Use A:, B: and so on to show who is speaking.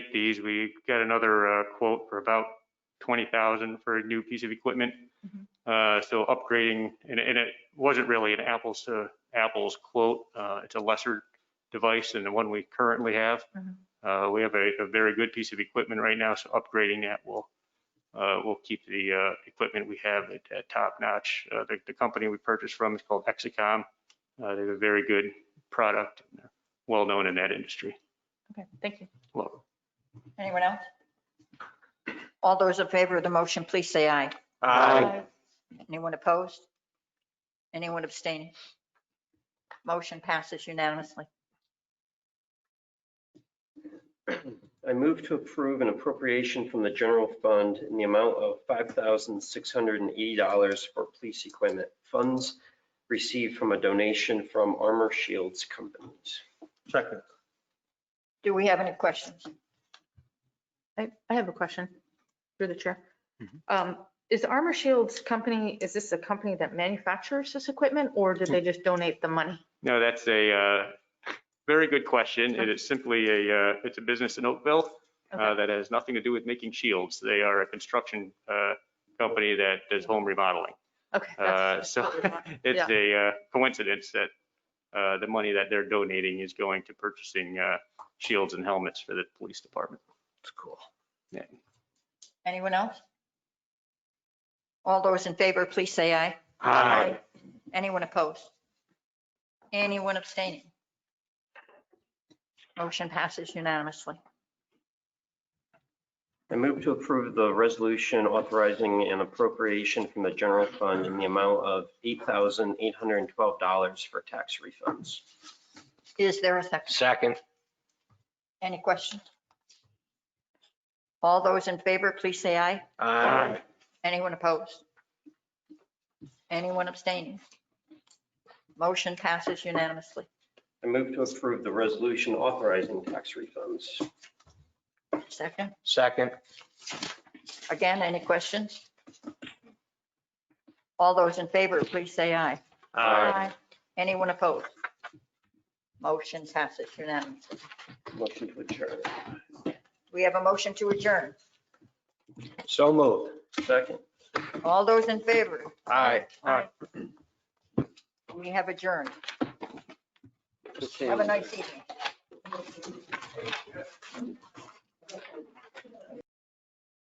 A: take these. We got another uh, quote for about 20,000 for a new piece of equipment. Uh, So upgrading, and and it wasn't really an apples to apples quote. Uh, It's a lesser device than the one we currently have.
B: Mhm.
A: Uh, We have a a very good piece of equipment right now, so upgrading that will, uh, will keep the uh, equipment we have at- at top notch. Uh, The the company we purchased from is called Exicom. Uh, They have a very good product, and they're well-known in that industry.
B: Okay, thank you.
A: Well,
B: Anyone else?
C: All those in favor of the motion, please say aye.
A: Aye.
C: Anyone opposed? Anyone abstaining? Motion passes unanimously.
D: I move to approve an appropriation from the general fund in the amount of $5,680 for police equipment funds received from a donation from Armor Shields Companies.
A: Second.
C: Do we have any questions?
B: I, I have a question through the chair.
A: Mhm.
B: Um, Is Armor Shields company, is this a company that manufactures this equipment or
A: Hmm.
B: did they just donate the money?
A: No, that's a uh, very good question. It is simply a, uh, it's a business in Oakville uh,
B: Okay.
A: that has nothing to do with making shields. They are a construction uh, company that does home remodeling.
B: Okay.
A: Uh,
B: that's- that's
A: So
B: what we want.
A: it's
B: Yeah.
A: a uh, coincidence that uh, the money that they're donating is going to purchasing uh, shields and helmets for the police department.
D: It's cool.
C: Anyone else? All those in favor, please say aye.
D: Aye.
C: Anyone opposed? Anyone abstaining? Motion passes unanimously.
D: I move to approve the resolution authorizing an appropriation from the general fund in the amount of $8,812 for tax refunds.
C: Is there a second?
E: Second.
C: Any questions? All those in favor, please say aye.
D: Aye.
C: Anyone opposed? Anyone abstaining? Motion passes unanimously.
D: I move to approve the resolution authorizing tax refunds.
C: Second,
E: Second.
C: again, any questions? All those in favor, please say aye. Anyone opposed? Motion passes unanimously.
D: Motion to adjourn.
C: We have a motion to adjourn.
E: So moved.
D: Second.
C: All those in favor,
E: Aye.
C: we have adjourned. Have a nice evening.